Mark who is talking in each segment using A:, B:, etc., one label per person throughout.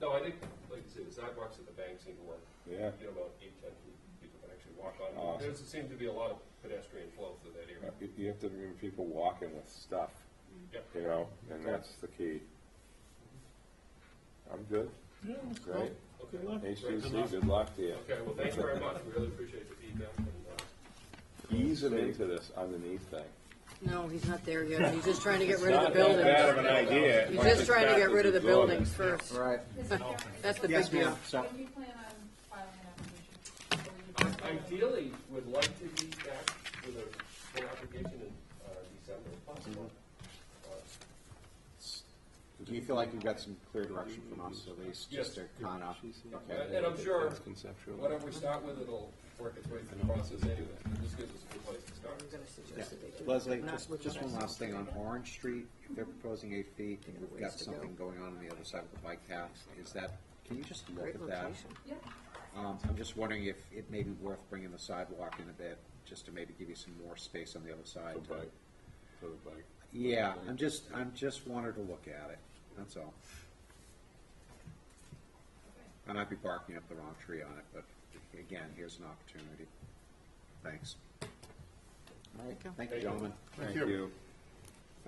A: No, I think, like you say, the sidewalks at the bank seem to work.
B: Yeah.
A: You know, about eight, ten feet, people can actually walk
B: Awesome.
A: on. There seems to be a lot of pedestrian flow through that area.
B: You, you have to remember people walking with stuff,
A: Yep.
B: you know, and that's the key. I'm good.
C: Yeah, that's cool.
B: Great.
C: Good luck.
B: HTC, good luck to you.
A: Okay, well, thanks very much. We really appreciate the feedback. and, uh,
B: Easing into this underneath thing.
D: No, he's not there yet. He's just trying to get rid of the
B: Not that bad of
D: buildings.
B: an idea.
D: He's just trying to get rid of the buildings
B: buildings.
D: first.
E: Right.
D: That's the
E: Yes,
D: big deal.
E: ma'am. So,
F: When do you plan on filing an application? Or you
A: I
F: plan on-
A: Ideally, would like to be back with a full application in uh, December if possible. Uh,
E: do you feel like you've got some clear direction from us at least, just to
A: Yes.
E: kind of,
A: And
E: okay?
A: Uh, and I'm sure
B: conceptual.
A: whatever we start with, it'll work its way through the process anyway. This gives us a good place to start.
D: I'm gonna suggest that they do.
E: Leslie,
D: Not
E: just,
D: with
E: just
D: the
E: one
D: rest
E: last
D: of
E: thing on
D: them.
E: Orange Street, if they're proposing eight feet, and we've
D: Ways
E: got
D: to go.
E: something going on on the other side of the bike path, is that, can you just look
D: Great
E: at that?
D: location.
F: Yeah,
E: Um, I'm just wondering if it may be worth bringing the sidewalk in a bit, just to maybe give you some more space on the other side. to-
B: For the bike.
E: Yeah, I'm just, I'm just wanted to look at it, that's all. I might be barking up the wrong tree on it, but again, here's an opportunity. Thanks. All right, thank you, gentlemen.
B: Thank you.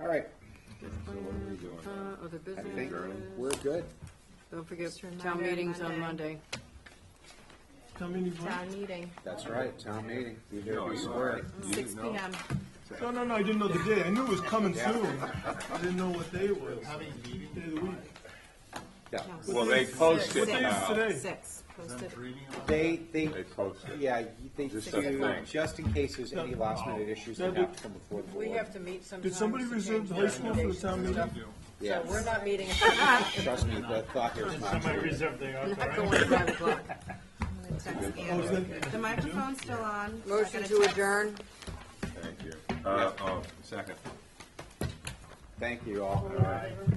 E: All right,
B: So what are we doing now?
D: Uh, other
E: I
D: business.
E: think we're good.
D: Don't forget,
G: remind
D: town
G: her
D: meetings on Monday.
G: Monday.
C: Tell me anymore.
G: Town Uh, meeting,
E: That's right, town meeting. Be there,
B: No,
E: be
B: Oh, you
E: square.
B: are. You
G: six P
B: know.
G: M.
C: No, no, no, I didn't know the day. I knew it was coming soon. I didn't know what day it was. Having a meeting? Day of the week.
E: Yeah.
B: Well, they post it
G: Six.
B: now.
C: Today.
G: Six, posted.
E: They, they,
B: They post it.
E: yeah, they
B: Just a
E: do,
B: thing.
E: just in case there's any last minute issues that have to come before the
D: We
E: board.
D: have to meet sometimes.
C: Did somebody
D: to
C: reserve
D: change
C: the high school for the
D: recommendations.
C: town meeting?
D: So
E: Yeah,
D: we're not meeting,
E: trust me, the thought here is not
H: Somebody
E: true.
H: reserved the
D: we're
H: auto,
D: not
H: right?
D: going at five o'clock.
G: I'm gonna text
C: Oh,
G: Andrew.
C: is that-
G: The microphone's still on. I
D: Motion
G: gotta
D: to
G: text.
D: adjourn.
B: Thank you. Uh, oh, second.
E: Thank you all.